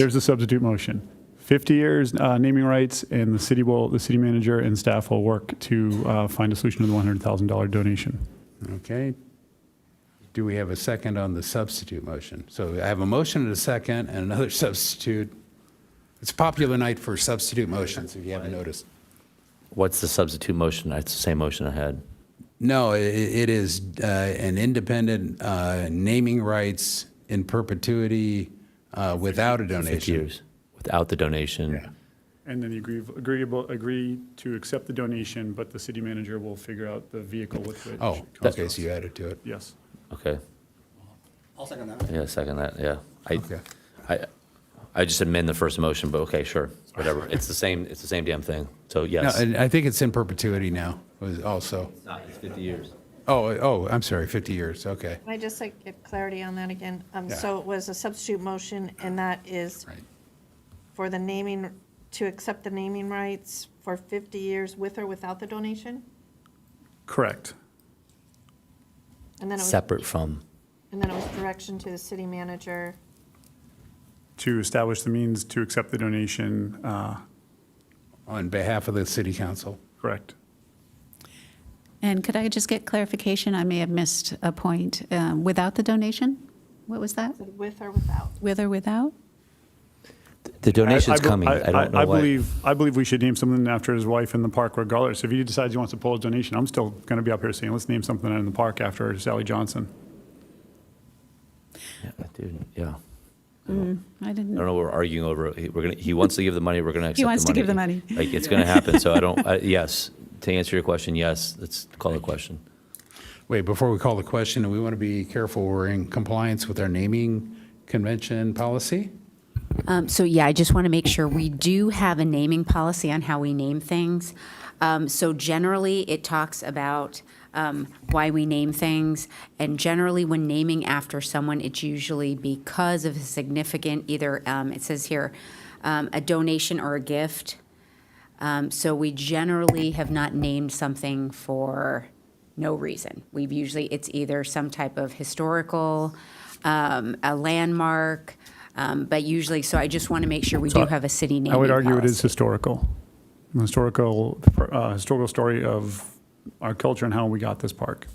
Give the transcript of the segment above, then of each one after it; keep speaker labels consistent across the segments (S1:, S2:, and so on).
S1: There's a substitute motion. 50 years uh, naming rights, and the city will, the city manager and staff will work to uh, find a solution to the $100,000 donation.
S2: Okay. Do we have a second on the substitute motion? So I have a motion and a second and another substitute. It's a popular night for substitute motions, if you haven't noticed.
S3: What's the substitute motion? It's the same motion I had.
S2: No, i- i- it is uh, an independent uh, naming rights in perpetuity uh, without a
S3: Fifty
S2: donation.
S3: years without the donation.
S1: And then you agree, agreeable, agree to accept the donation, but the city manager will figure out the vehicle with which.
S2: Oh, okay, so you added to it.
S1: Yes.
S3: Okay.
S4: I'll second that.
S3: Yeah, second that. Yeah.
S2: Okay.
S3: I, I, I just amend the first motion, but okay, sure, whatever. It's the same. It's the same damn thing. So
S2: No,
S3: yes.
S2: and I think it's in perpetuity now, was also.
S3: it's fifty years.
S2: Oh, oh, I'm sorry, 50 years, okay.
S5: Can I just like get clarity on that again? Um,
S2: Yeah.
S5: So it was a substitute motion, and that is
S2: Right.
S5: for the naming, to accept the naming rights for 50 years with or without the donation?
S1: Correct.
S5: And then it was,
S3: Separate from.
S5: and then it was direction to the city manager.
S1: To establish the means to accept the donation, uh,
S2: On behalf of the city council.
S1: correct.
S6: And could I just get clarification? I may have missed a point. Um, Without the donation? What was that?
S5: Is it With or without?
S6: With or without?
S3: The donation's
S1: be-
S3: coming. I, don't know
S1: I
S3: why.
S1: believe, I believe we should name something after his wife in the park regardless. If he decides he wants to pull a donation, I'm still going to be up here saying, let's name something in the park after Sally Johnson.
S3: Yeah, dude, yeah.
S6: I
S3: I
S6: didn't.
S3: don't know. We're arguing over. he- We're gonna. He wants to give the money. We're gonna. Accept
S6: wants to give the money.
S3: Like it's gonna happen. So I don't. I, yes. To answer your question, yes. Let's call the question.
S2: Wait, before we call the question, we want to be careful, we're in compliance with our naming convention policy?
S7: Um, So, yeah, I just want to make sure, we do have a naming policy on how we name things. Um, So generally, it talks about um, why we name things, and generally, when naming after someone, it's usually because of a significant, either, um, it says here, um, a donation or a gift. Um, So we generally have not named something for no reason. We've usually, it's either some type of historical, um, a landmark, um, but usually, so I just want to make sure we do have a city naming
S1: I would argue it is
S7: policy.
S1: historical. An Historical, uh, historical story of our culture and how we got this park.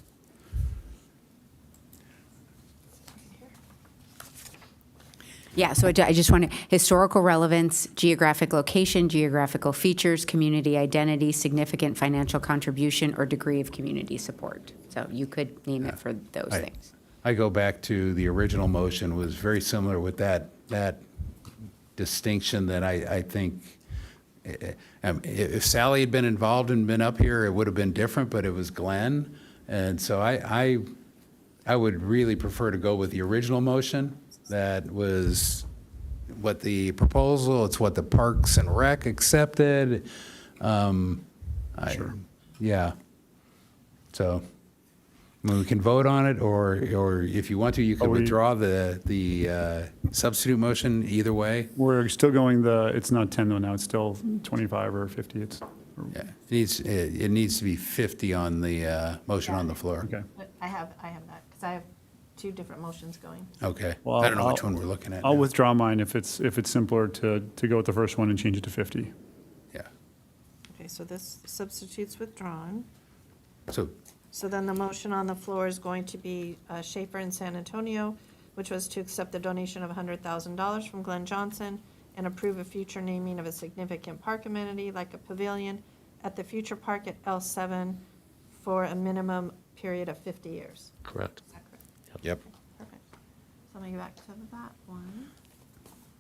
S7: Yeah, so I ju- I just want to, historical relevance, geographic location, geographical features, community identity, significant financial contribution, or degree of community support. So you could name it for those
S2: I-
S7: things.
S2: I go back to the original motion was very similar with that, that distinction that I, I think, eh, eh, um, i- if Sally had been involved and been up here, it would have been different, but it was Glenn. And so I, I, I would really prefer to go with the original motion that was what the proposal, it's what the Parks and Rec accepted. Sure. Yeah. So, I mean, we can vote on it, or, or if you want to, you
S1: Are
S2: can
S1: we-
S2: withdraw the, the uh, substitute motion either way.
S1: We're still going the, it's not 10 though now, it's still 25 or 50, it's,
S2: Yeah. It needs, it it needs to be 50 on the uh, motion on the floor.
S1: okay.
S5: But I have, I have that, because I have two different motions going.
S2: Okay.
S1: Well,
S2: I don't know which
S1: I'll-
S2: one we're looking at.
S1: I'll
S2: now.
S1: withdraw mine if it's, if it's simpler to, to go with the first one and change it to 50.
S2: Yeah.
S5: Okay, so this substitute's withdrawn.
S2: So,
S5: So then the motion on the floor is going to be uh, Schaefer in San Antonio, which was to accept the donation of $100,000 from Glenn Johnson and approve a future naming of a significant park amenity like a pavilion at the future park at L7 for a minimum period of 50 years.
S3: Correct.
S5: Is that correct?
S2: yep.
S5: Perfect. So let me go back to that one.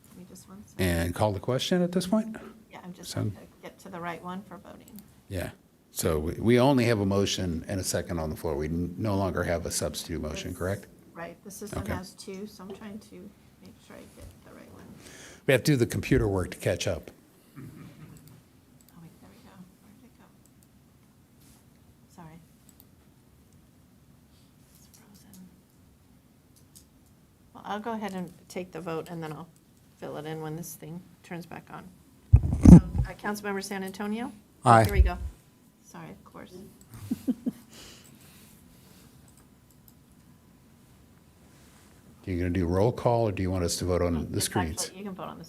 S5: Give me just one second.
S2: And call the question at this point?
S5: Yeah, I'm just
S2: Sound-
S5: going to get to the right one for voting.
S2: Yeah. So we- we only have a motion and a second on the floor. We n- no longer have a substitute motion, correct?
S5: Right, the system
S2: Okay.
S5: has two, so I'm trying to make sure I get the right one.
S2: We have to do the computer work to catch up.
S5: Oh, wait, there we go. Where did it go? Sorry. It's frozen. Well, I'll go ahead and take the vote, and then I'll fill it in when this thing turns back on. So, uh, Councilmember San Antonio?
S2: Aye.
S5: Here we go. Sorry, of course.
S2: You're going to do roll call, or do you want us to vote on the
S5: It's
S2: screens?
S5: Um, actually- You can vote on the